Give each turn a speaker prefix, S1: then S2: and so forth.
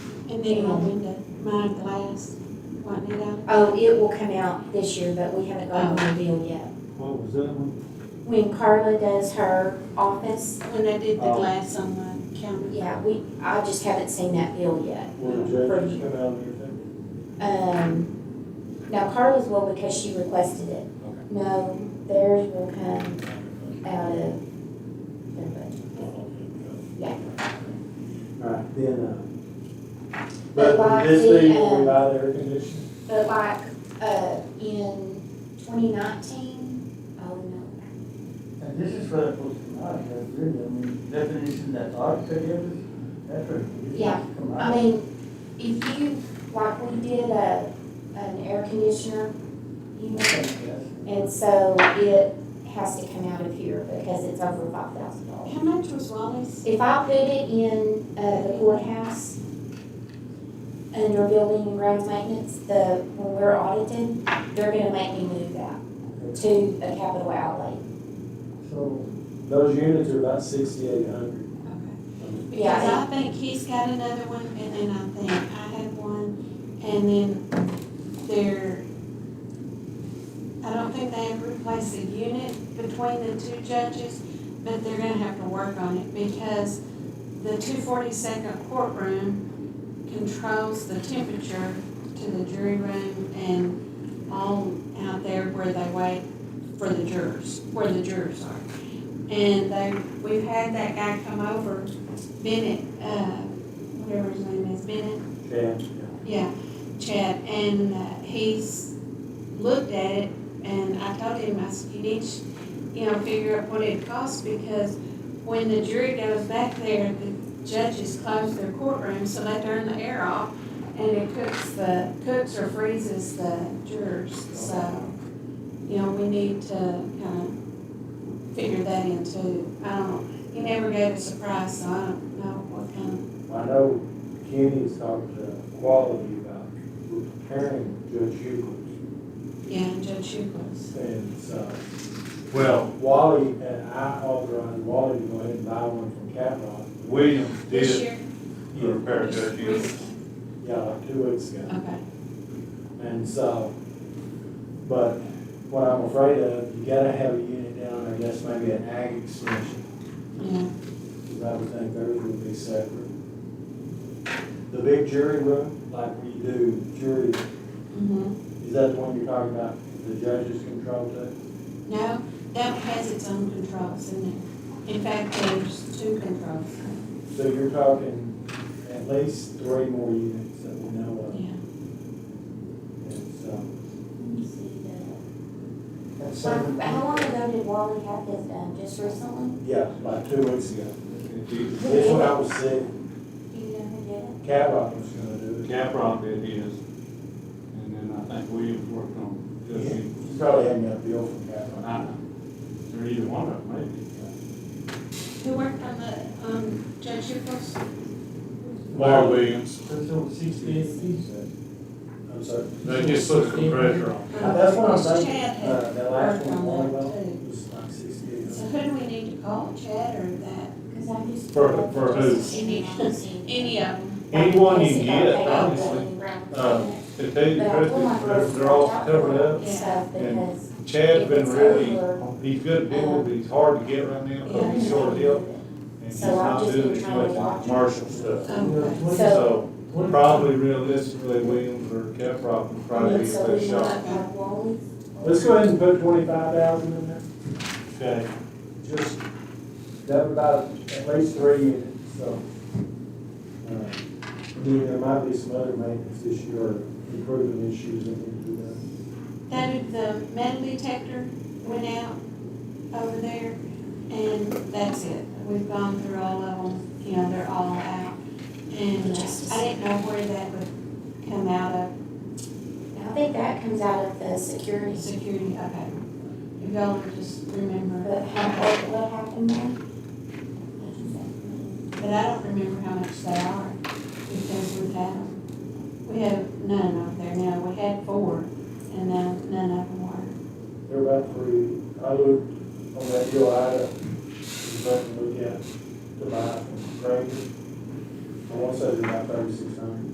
S1: And then my window, my glass, whiten it out.
S2: Oh, it will come out this year, but we haven't gotten the bill yet.
S3: What was that one?
S2: When Carla does her office,
S1: When they did the
S3: Oh.
S1: glass on the counter.
S2: yeah, we, I just haven't seen that bill yet.
S3: Where the judges come out and everything?
S2: Um, now Carla's will because she requested it.
S3: Okay.
S2: No, theirs will come out of their budget. Yeah.
S3: Alright, then, uh,
S2: But
S3: but
S2: like
S3: would this be
S2: the,
S3: where we
S2: um,
S3: buy the air conditioner?
S2: But like, uh, in twenty nineteen, oh no,
S4: And this is where it was from us, that's really, I mean, definition that architect gave us, that's where. it
S2: Yeah,
S4: come
S2: I
S4: out.
S2: mean, if you, like we did a, an air conditioner, you know,
S4: Yes.
S2: and so it has to come out of here because it's over five thousand dollars.
S1: How much was Wally's?
S2: If I put it in, uh, the courthouse, under building and grounds maintenance, the, when we're audited, they're gonna make me move that to a capital outlay.
S4: So,
S3: Those units are about sixty-eight hundred.
S1: Okay.
S2: Yeah,
S1: Because I think he's got another one, and then I think I have one, and then there, I don't think they have replaced the unit between the two judges, but they're gonna have to work on it, because the two forty-second courtroom controls the temperature to the jury room and all out there where they wait for the jurors, where the jurors are. And they, we've had that guy come over, Bennett, uh, whatever his name is, Bennett,
S3: Yeah.
S1: yeah, Chad, and uh, he's looked at it, and I told him, I said, you need, to, you know, figure out what it costs, because when the jury goes back there, the judges close their courtroom, so they turn the air off, and it cooks the, cooks or freezes the jurors, so, you know, we need to kind of figure that in too. I don't, he never gave us a price, so I don't know what kind
S3: I know Kenny's talked to Quality about repairing Judge Euclid's,
S1: of, yeah, Judge Shug was.
S3: and so
S5: Well,
S3: Wally, and I authorized Wally to go ahead and buy one from Catlot,
S5: Williams
S1: This
S5: did
S1: year?
S5: repair that unit.
S3: yeah, like two weeks ago.
S1: Okay,
S3: And so, but what I'm afraid of, you gotta have a unit down, I guess maybe an ag extension,
S1: yeah,
S3: because I would think theirs would be separate. The big jury room, like we do jury,
S1: mm-hmm.
S3: is that the one you're talking about, the judges control too?
S1: No, that has its own controls in it. In fact, there's two controls,
S3: So you're talking at least three more units that we know of,
S1: yeah.
S3: and so,
S2: Let me see the.
S4: that's seven.
S2: How how long ago did Wally have this done? Just recently?
S3: yeah, like two weeks ago.
S5: He-
S3: This one I was sick,
S2: Do you know who did it?
S3: Catlot was gonna do it.
S5: Caprock did his, and then I think Williams worked on Judge Euclid.
S3: You probably had me a bill from Catlot.
S5: I don't know, or either one of them, maybe.
S1: Who worked on the, um, Judge Nichols?
S5: Larry Williams,
S4: That's over sixty-eight feet, so.
S3: I'm sorry.
S5: they just put some pressure on.
S3: Uh, That's what I'm saying.
S1: Chad had,
S3: Uh, that last
S1: Worked on
S3: one, Wally
S1: that
S3: Bell,
S1: too.
S3: was like sixty-eight
S1: so
S3: hundred.
S1: who do we need to call, Chad or that?
S2: Cause I just.
S5: For- for who?
S1: Any uh, of them.
S5: Anyone you get, honestly,
S3: Uh,
S5: um, to tell you the
S2: But one of
S5: truth, they're,
S2: those-
S5: they're all covered up.
S2: Stuff because.
S5: Chad's
S2: if
S5: been
S2: it's
S5: really,
S2: over,
S5: he's good at doing it, but he's hard to get right now,
S2: yeah,
S5: because he's short hip, and he's
S2: So I've
S5: not
S2: just
S5: doing
S2: been
S5: as
S2: trying to
S5: much
S2: watch.
S5: commercial stuff.
S1: Okay.
S5: So,
S4: What-
S5: probably realistically, Williams or Caprock would probably be the
S2: So
S5: best
S2: we might
S5: shot.
S2: have Wally's.
S3: Let's go ahead and put twenty-five thousand in there,
S5: Okay,
S3: just, that would about at least three units, so. uh, Then there might be some other maintenance issue or improvement issues that need to be done.
S1: That, the metal detector went out over there, and that's it. We've gone through all of them, you know, they're all out. And uh, I didn't know where that would come out of.
S2: I think that comes out of the security,
S1: Security, okay. If y'all would just remember,
S2: but how, what, what happened there?
S1: but I don't remember how much they are, because we've had them. We have none out there now, we had four, and now none of them were.
S3: They're about three, I looked